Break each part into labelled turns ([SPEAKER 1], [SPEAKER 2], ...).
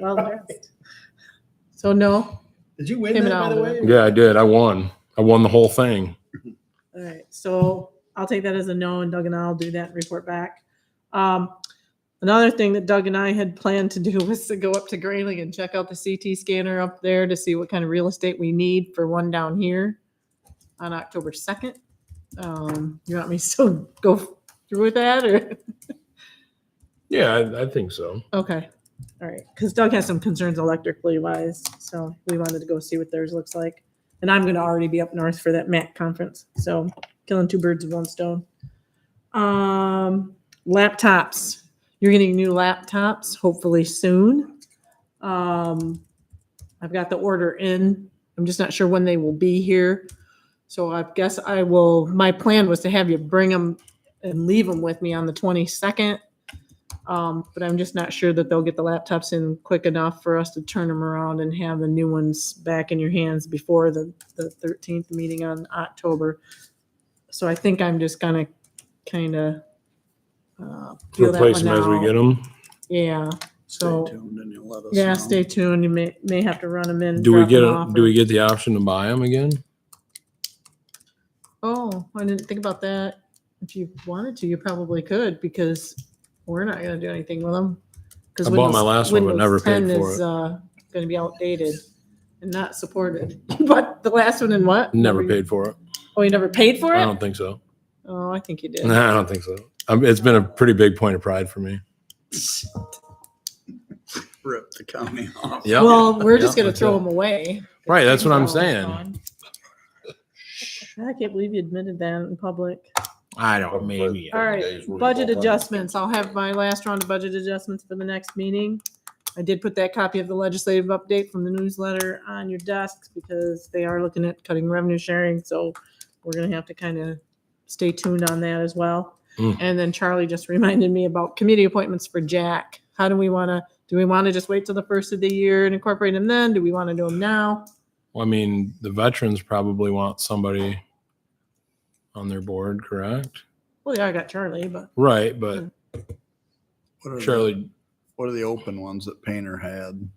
[SPEAKER 1] well dressed. So no?
[SPEAKER 2] Did you win
[SPEAKER 1] Him
[SPEAKER 2] that,
[SPEAKER 1] and
[SPEAKER 2] by the way?
[SPEAKER 1] Oliver.
[SPEAKER 3] Yeah, I did. I won. I won the whole thing.
[SPEAKER 1] All right, so I'll take that as a no, and Doug and I'll do that and report back. Um, another thing that Doug and I had planned to do was to go up to Grayling and check out the CT scanner up there to see what kind of real estate we need for one down here on October second. Um, you want me to still go through with that or?
[SPEAKER 3] Yeah, I, I think so.
[SPEAKER 1] Okay, all right, because Doug has some concerns electrically wise, so we wanted to go see what theirs looks like. And I'm gonna already be up north for that MAC conference, so killing two birds with one stone. Um, laptops, you're getting new laptops hopefully soon. Um, I've got the order in, I'm just not sure when they will be here. So I guess I will, my plan was to have you bring them and leave them with me on the twenty-second. Um, but I'm just not sure that they'll get the laptops in quick enough for us to turn them around and have the new ones back in your hands before the, the thirteenth meeting on October. So I think I'm just gonna kinda, uh. peel that
[SPEAKER 3] Replace them
[SPEAKER 1] one
[SPEAKER 3] as we
[SPEAKER 1] out.
[SPEAKER 3] get them.
[SPEAKER 1] Yeah, So-
[SPEAKER 2] Stay tuned and you'll let us
[SPEAKER 1] yeah,
[SPEAKER 2] know.
[SPEAKER 1] stay tuned, you may, may have to run them in.
[SPEAKER 3] um, Do we
[SPEAKER 1] drop
[SPEAKER 3] get
[SPEAKER 1] 'em
[SPEAKER 3] a,
[SPEAKER 1] off
[SPEAKER 3] do
[SPEAKER 1] or-
[SPEAKER 3] we get the option to buy them again?
[SPEAKER 1] Oh, I didn't think about that. If you wanted to, you probably could because we're not going to do anything with them.
[SPEAKER 3] I bought my last one, but never paid for it.
[SPEAKER 1] Uh, going to be outdated and not supported. but the last one in what?
[SPEAKER 3] Never
[SPEAKER 1] Were you-
[SPEAKER 3] paid for it.
[SPEAKER 1] Oh, you never paid for
[SPEAKER 3] I
[SPEAKER 1] it?
[SPEAKER 3] don't think so.
[SPEAKER 1] Oh, I think you did.
[SPEAKER 3] No, I don't think so. Um, it's been a pretty big point of pride for me.
[SPEAKER 2] Rip the county off.
[SPEAKER 3] Yeah.
[SPEAKER 1] Well, we're just
[SPEAKER 3] Yeah,
[SPEAKER 1] going to
[SPEAKER 3] that's
[SPEAKER 1] throw
[SPEAKER 3] it.
[SPEAKER 1] them away.
[SPEAKER 3] Right, that's what I'm
[SPEAKER 1] They're
[SPEAKER 3] saying.
[SPEAKER 1] gone. I can't believe you admitted that in public.
[SPEAKER 3] I don't maybe.
[SPEAKER 1] All right, budget adjustments. I'll have my last round of budget adjustments for the next meeting. I did put that copy of the legislative update from the newsletter on your desks because they are looking at cutting revenue sharing, so we're gonna have to kind of stay tuned on that as well.
[SPEAKER 3] Mm.
[SPEAKER 1] And then Charlie just reminded me about committee appointments for Jack. How do we want to, do we want to just wait till the first of the year and incorporate him then? Do we want to do him now?
[SPEAKER 3] Well, I mean, the veterans probably want somebody on their board, correct?
[SPEAKER 1] Well, yeah, I got Charlie, but
[SPEAKER 3] Right, but
[SPEAKER 1] Mm.
[SPEAKER 2] What
[SPEAKER 1] Mm-hmm.
[SPEAKER 2] are, the,
[SPEAKER 3] Charlie,
[SPEAKER 2] what are the open ones that Painter had?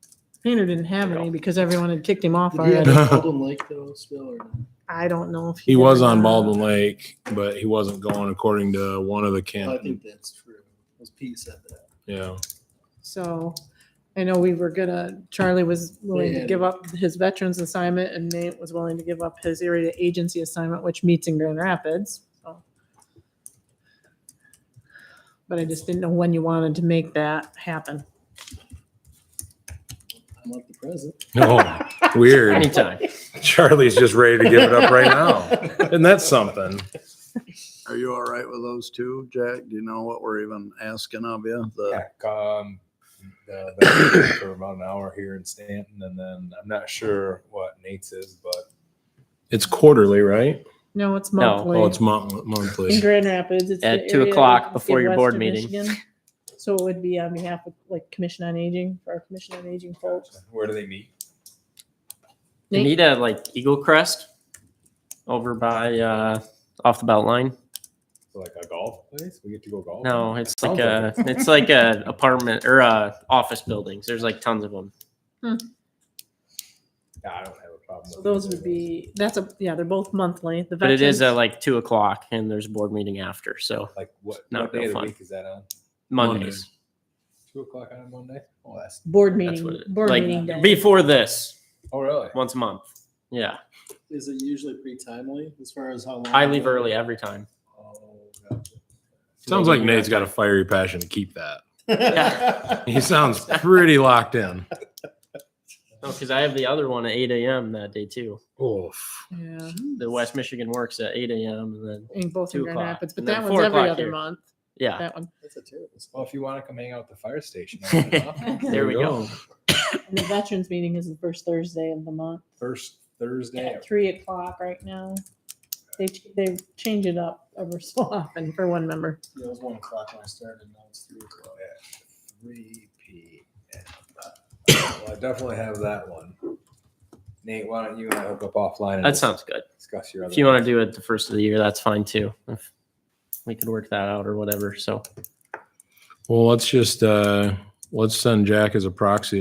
[SPEAKER 1] Painter didn't have any because everyone had kicked him off
[SPEAKER 4] Did he have
[SPEAKER 1] already.
[SPEAKER 4] a Golden Lake that was still or no?
[SPEAKER 1] I don't know if.
[SPEAKER 3] he
[SPEAKER 1] did or
[SPEAKER 3] was on
[SPEAKER 1] not.
[SPEAKER 3] Baldwin Lake, but he wasn't going according to one of the
[SPEAKER 4] I
[SPEAKER 3] candidates.
[SPEAKER 4] think that's true. Because Pete said that.
[SPEAKER 3] Yeah.
[SPEAKER 1] So I know we were gonna, Charlie was willing to
[SPEAKER 4] Yeah.
[SPEAKER 1] give up his veterans assignment and Nate was willing to give up his area agency assignment, which meets in Grand Rapids. so. But I just didn't know when you wanted to make that happen.
[SPEAKER 4] I like the present.
[SPEAKER 3] Oh, weird.
[SPEAKER 5] Anytime.
[SPEAKER 3] Charlie's just ready to give it up right now. And that's something.
[SPEAKER 2] Are you all right with those two, Jack? Do you know what we're even asking of you? The,
[SPEAKER 6] Yeah, um, the, the- for about an hour here in Stanton, and then I'm not sure what Nate's is, but
[SPEAKER 3] It's quarterly, right?
[SPEAKER 1] No, it's
[SPEAKER 5] No.
[SPEAKER 3] Oh, it's
[SPEAKER 1] monthly.
[SPEAKER 3] mon-
[SPEAKER 1] In
[SPEAKER 3] monthly.
[SPEAKER 1] Grand Rapids, it's. the
[SPEAKER 5] At two
[SPEAKER 1] area
[SPEAKER 5] o'clock
[SPEAKER 1] agency
[SPEAKER 5] before
[SPEAKER 1] of
[SPEAKER 5] your board
[SPEAKER 1] Western
[SPEAKER 5] meeting.
[SPEAKER 1] Michigan. So it would be on behalf of like Commission on Aging, for our Commission on Aging folks.
[SPEAKER 6] where do they meet?
[SPEAKER 5] They
[SPEAKER 1] Nate?
[SPEAKER 5] need a like Eagle Crest over by uh off the belt line.
[SPEAKER 6] Is it Like a golf place? We get to go golf?
[SPEAKER 5] No, it's like
[SPEAKER 6] Sounds
[SPEAKER 5] a it's like a apartment or uh office buildings. There's like tons of them.
[SPEAKER 6] Yeah, I don't have a problem.
[SPEAKER 1] So
[SPEAKER 6] with
[SPEAKER 1] those
[SPEAKER 6] either
[SPEAKER 1] would
[SPEAKER 6] of
[SPEAKER 1] be, that's a, yeah, they're both monthly. The
[SPEAKER 5] But it is at
[SPEAKER 1] veterans-
[SPEAKER 5] like two o'clock and there's a board meeting after. So
[SPEAKER 6] Like what,
[SPEAKER 5] Not
[SPEAKER 6] what
[SPEAKER 5] real
[SPEAKER 6] day of the
[SPEAKER 5] fun.
[SPEAKER 6] week is that on?
[SPEAKER 5] Mondays.
[SPEAKER 6] Two o'clock on a Monday? Oh, that's,
[SPEAKER 1] Board
[SPEAKER 5] That's what
[SPEAKER 1] meeting,
[SPEAKER 5] it,
[SPEAKER 1] board
[SPEAKER 5] like
[SPEAKER 1] meeting day.
[SPEAKER 5] before this,
[SPEAKER 6] oh, really?
[SPEAKER 5] once a month. Yeah.
[SPEAKER 4] Is it usually pretty timely as far as how long?
[SPEAKER 5] I leave early every time.
[SPEAKER 6] Oh, gotcha.
[SPEAKER 3] Sounds like Nate's got a fiery passion to keep that.
[SPEAKER 4] Yeah.
[SPEAKER 3] He sounds pretty locked in.
[SPEAKER 5] No, because Oh, I have the other one at eight AM that day too.
[SPEAKER 3] Oof.
[SPEAKER 1] Yeah,
[SPEAKER 5] The West Michigan works at eight AM and then
[SPEAKER 1] in both in
[SPEAKER 5] Two
[SPEAKER 1] Grand
[SPEAKER 5] o'clock,
[SPEAKER 1] Rapids, but
[SPEAKER 5] and then
[SPEAKER 1] that
[SPEAKER 5] four
[SPEAKER 1] one's every
[SPEAKER 5] o'clock
[SPEAKER 1] other
[SPEAKER 5] here. Ah.
[SPEAKER 1] month,
[SPEAKER 5] yeah.
[SPEAKER 1] that one.
[SPEAKER 4] That's a terrible spot.
[SPEAKER 6] Well, if you want to come hang out at the fire station, I don't know.
[SPEAKER 5] There we go.
[SPEAKER 1] And the veterans meeting is the first Thursday of the month,
[SPEAKER 6] first Thursday.
[SPEAKER 1] at three o'clock right now. They, ch- they change it up ever so often for one member.
[SPEAKER 4] Yeah, it was one o'clock when I started. Now it's three o'clock.
[SPEAKER 6] Three P M. Well, I definitely have that one. Nate, why don't you and I hook up offline? and
[SPEAKER 5] That sounds good.
[SPEAKER 6] Discuss your other.
[SPEAKER 5] If you want to do it the first of the year, that's fine too. If we could work that out or whatever. So
[SPEAKER 3] Well, let's just, uh, let's send Jack as a proxy